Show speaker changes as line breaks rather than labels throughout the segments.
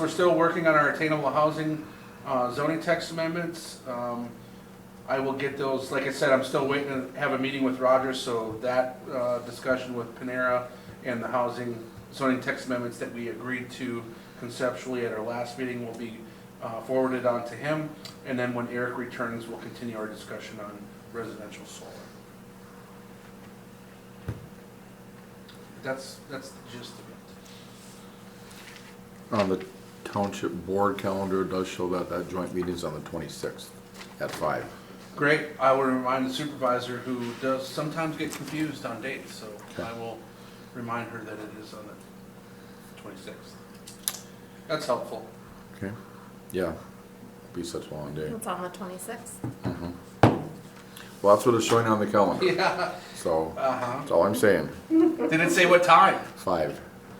We're still working on our attainable housing uh, zoning text amendments. Um, I will get those, like I said, I'm still waiting to have a meeting with Rogers, so that uh, discussion with Panera and the housing zoning text amendments that we agreed to conceptually at our last meeting will be uh, forwarded on to him. And then when Eric returns, we'll continue our discussion on residential solar. That's, that's the gist of it.
On the township board calendar, it does show that that joint meeting's on the 26th at five.
Great, I will remind the supervisor who does sometimes get confused on dates, so I will remind her that it is on the twenty-sixth. That's helpful.
Okay. Yeah, be such a long day. Mm-hmm.
It's on the twenty-sixth.
Well, that's what it's showing on the calendar,
Yeah,
so
uh-huh.
that's all I'm saying,
Did it say what time?
five.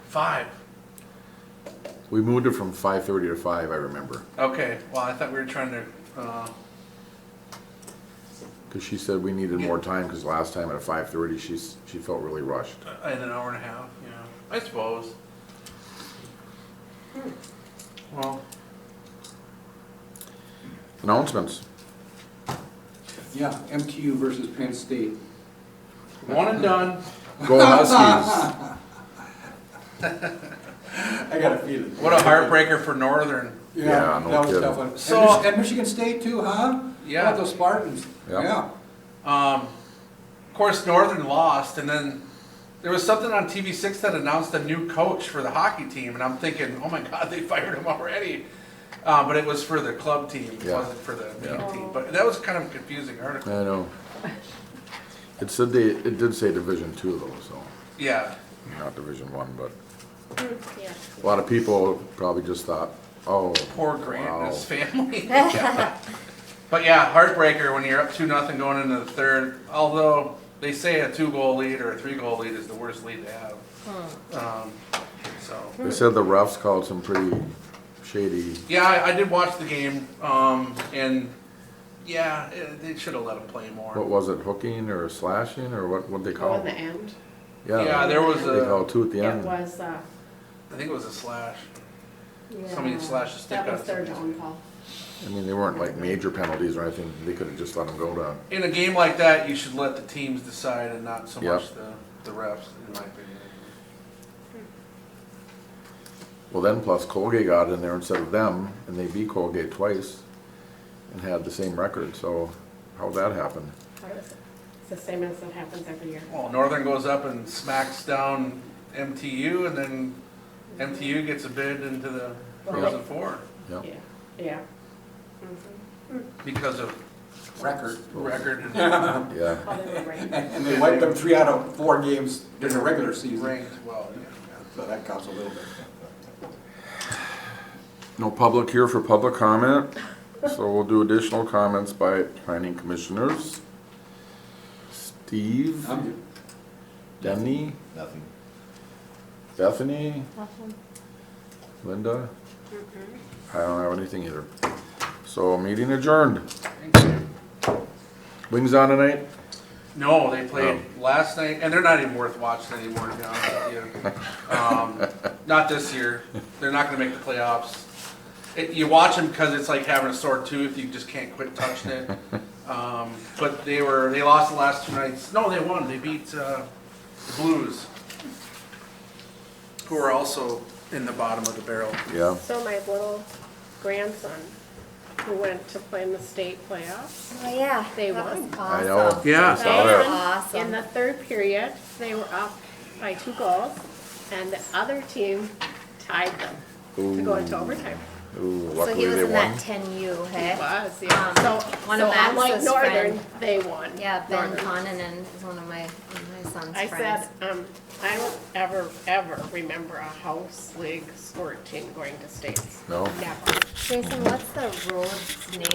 Five.
We moved it from 5:30 to five, I remember,
Okay, well, I thought we were trying to, uh,
because she said we needed more time, because last time at 5:30, she's, she felt really rushed.
in an hour and a half, yeah, I suppose. Well,
Announcements,
Yeah, MTU versus Penn State.
one and done.
go Huskies.
I got a feeling.
What a heartbreaker for Northern.
Yeah,
Yeah,
no
that was a
kidding.
tough one.
So-
And Mich- And Michigan State too, huh?
Yeah.
Those Spartans,
Yeah.
yeah.
Um, of course, Northern lost, and then there was something on TV6 that announced a new coach for the hockey team, and I'm thinking, oh my God, they fired him already. Uh, but it was for the club team, it
Yeah.
wasn't for the main
Yeah.
team. But that was kind of a confusing
I
article.
know. It said they, it did say Division Two though, so,
Yeah,
not Division One, but
Yeah.
a lot of people probably just thought, oh.
poor Grant and
wow.
his family. But yeah, heartbreaker when you're up two nothing going into the third. Although they say a two goal lead or a three goal lead is the worst lead to have. Um, so.
They said the refs called some pretty shady,
Yeah, I, I did watch the game, um, and yeah, eh, they should have let him play more.
what was it, hooking or slashing or what, what'd they
Oh,
call
in the
it?
end?
yeah, there was
They
a,
called two at the
It
end.
was, uh.
I think it was a slash.
yeah,
Somebody slashed a stick
That was
out
their
somebody's-
downfall.
I mean, they weren't like major penalties or anything, they could have just let them go down.
In a game like that, you should let the teams decide and not so
Yeah.
much the, the refs, in my opinion.
Well, then plus Colgate got in there instead of them and they beat Colgate twice and had the same record, so how'd that happen?
That was- It's the same as it happens every year.
Well, Northern goes up and smacks down MTU, and then MTU gets a bid into the Frozen Four
Yeah.
Yeah, yeah. Mhm.
because of
Record.
record and
And
Yeah,
Oh, they were right.
and they wiped them three out of four games during the regular season,
ranked well. yeah, yeah.
so that counts a little bit.
no public here for public comment, so we'll do additional comments by planning commissioners. Steve?
I'm good.
Denny?
Nothing.
Bethany? Linda?
Mm-hmm.
I don't have anything either. So meeting adjourned. Wings on tonight?
No, they played last night, and they're not even worth watching anymore, to be honest with you. Um, not this year. They're not going to make the playoffs. It, you watch them because it's like having a sore tooth. You just can't quit touching it. Um, but they were they lost the last two nights. No, they won. They beat uh, the Blues, who are also in the bottom of the barrel.
Yeah.
So my little grandson, who went to play in the state playoffs,
Oh, yeah.
They
That was
won.
I
awesome.
know.
Yeah.
I saw that.
in
Awesome.
the third period, they were up by two goals, and the other team tied them to go into overtime.
Ooh,
So he
luckily
was
they
in that
won.
ten U,
It
hey?
was, um, yeah. So,
one
so
of
unlike
Max's
Northern,
friend-
they won.
Yeah, Ben
Northern.
Conanen is one of my, one of my son's
I
friends.
said, um, I don't ever, ever remember a house league sport team going to states.
No.
Never.
Jason, what's the road's name